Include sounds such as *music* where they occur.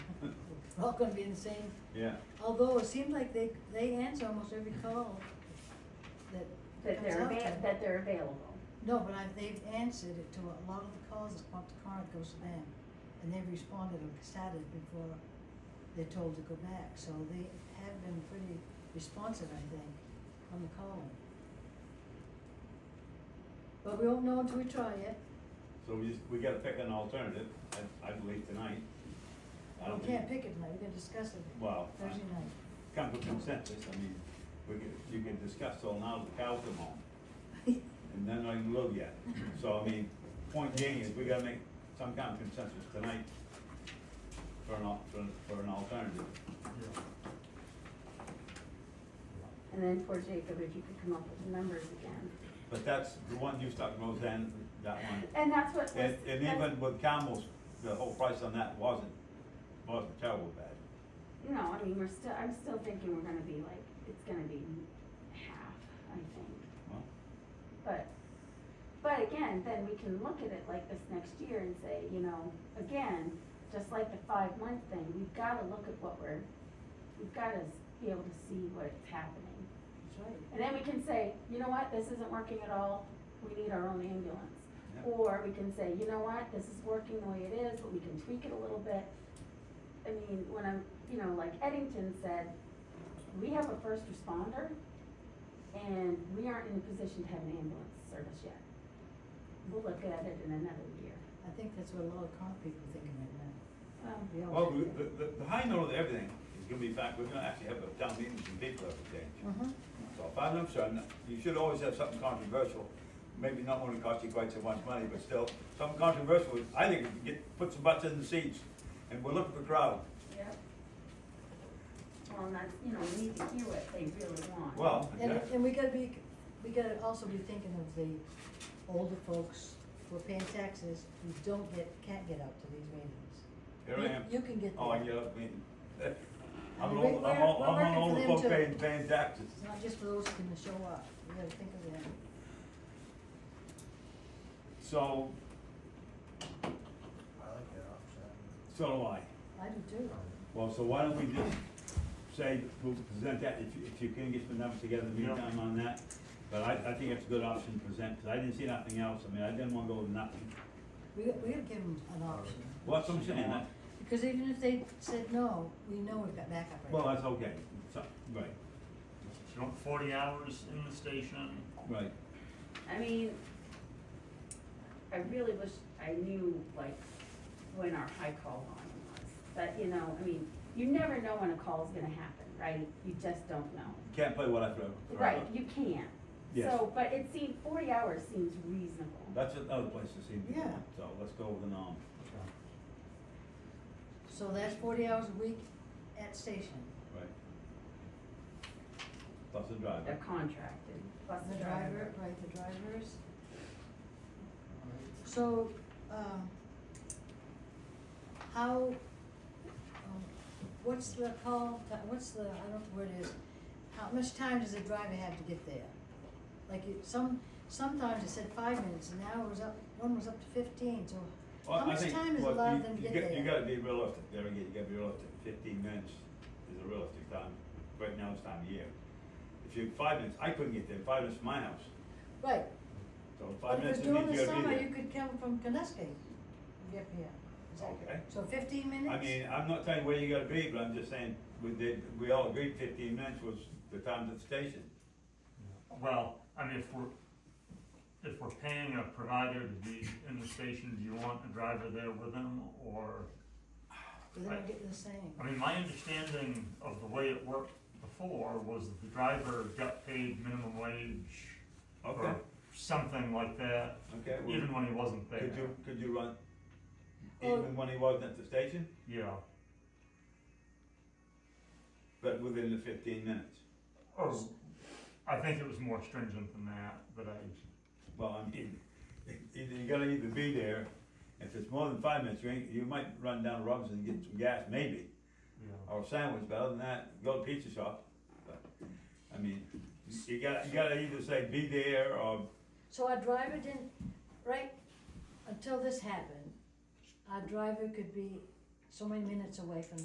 all gonna be in the same, Yeah, although it seems like they, they answer almost every call that that comes they're out to avail- them. that they're available. No, but I, they've answered it to a lot of the calls that come up to Corinth goes to them, and they've responded on Saturday before they're told to go back, so they have been pretty responsive, I think, on the calling. But we won't know until we try it, so we just, we gotta pick an alternative, I, I believe tonight. I don't we can't think- pick it tonight, we can discuss it Well, I- Thursday night. *laughs* Come to consensus, I mean, we can, you can discuss till now the cows come home, and then I can look yet. So, I mean, point being is we gotta make some kind of consensus tonight for an al- for, for an alternative. And then poor Jacob, if you could come up with the numbers again. But that's the one you stuck Roseanne, that one. And that's what was. And, and that's- even with camels, the whole price on that wasn't, wasn't terrible bad. No, I mean, we're still, I'm still thinking we're gonna be like, it's gonna be half, I think, Well, but, but again, then we can look at it like this next year and say, you know, again, just like the five month thing, we've gotta look at what we're, we've gotta s- be able to see what's happening. That's right. And then we can say, you know what, this isn't working at all, we need our own ambulance. Yeah. Or we can say, you know what, this is working the way it is, but we can tweak it a little bit. I mean, when I'm, you know, like Eddington said, we have a first responder and we aren't in a position to have an ambulance service yet. We'll look at it in another year. I think that's what a lot of Corinth people are thinking right now. We all Well, think we- that. the, the, the high note of everything is gonna be the fact, we're gonna actually have a town meeting and people have to change. Mhm. So if I'm concerned, you should always have something controversial, maybe not one that costs you quite so much money, but still, something controversial, I think we can get, put some butts in the seats, and we're looking for crowd. Yep. Well, and that's, you know, we need to hear what they really want. Well, And, exactly. and we gotta be, we gotta also be thinking of the older folks who are paying taxes who don't get, can't get out to these meetings. here I am. You can get Oh, I there. get up, mean, I *laughs* I'm mean, old, we're- I'm old, we're I'm an working for older them folk too. paying, paying taxes. It's not just for those who can show up, we gotta think of them. So, I like that option. so do I. I do too. Well, so why don't we just say, we'll present that, if, you- if you can get some numbers together in the Yeah. meantime on that. But I, I think that's a good option to present, because I didn't see nothing else, I mean, I didn't wanna go with nothing. We, we gotta give them an option, What's I'm saying, that- because even if they said no, we know we've got backup right well, now. that's okay, so, right, You want forty hours in the station? right. I mean, I really wish I knew like when our high call volume was, but you know, I mean, you never know when a call's gonna happen, right? You just don't know. Can't play what I throw. throw Right, out. you can't. Yes. So, but it seemed, forty hours seems reasonable. That's another place to see, people. Yeah. so let's go with the norm. So that's forty hours a week at station, right. Plus the driver. They're contracted, plus the driver, right, the drivers. So, um, how, um, what's the call, ti- what's the, I don't know what it is, how much time does the driver have to get there? Like, it, some, sometimes it said five minutes, and now it was up, one was up to fifteen, so Well, how I much think- time is well, allowed you- them to you get there? You gotta be realistic, there again, you gotta be realistic, fifteen minutes is a realistic time, right now it's time of year. If you, five minutes, I couldn't get there, five minutes from my house, Right, so but five if minutes it's it means during the you gotta summer, you be could come from Conneska, and get here. Is that- Okay. So fifteen there. minutes? I mean, I'm not telling you where you gotta be, but I'm just saying, we did, we all agreed fifteen minutes was the time at the station. Well, I mean, if we're, if we're paying a provider to be in the station, do you want a driver there with them, or? But then I get the same. I mean, my understanding of the way it worked before was that the driver got paid minimum wage Okay, or something like that, okay, well, even when he wasn't there. could you, could you run, Well- even when he wasn't at the station, Yeah, but within the fifteen minutes? or, Oh, I think it was more stringent than that, but I, Well, I mean, either you gotta either be there, if it's more than five minutes, you ain't, you might run down to Robinson and get some gas, maybe, yeah. or a sandwich, but other than that, go to pizza shop. But, I mean, you gotta, you gotta either say be there or, So our driver didn't, right, until this happened, our driver could be so many minutes away from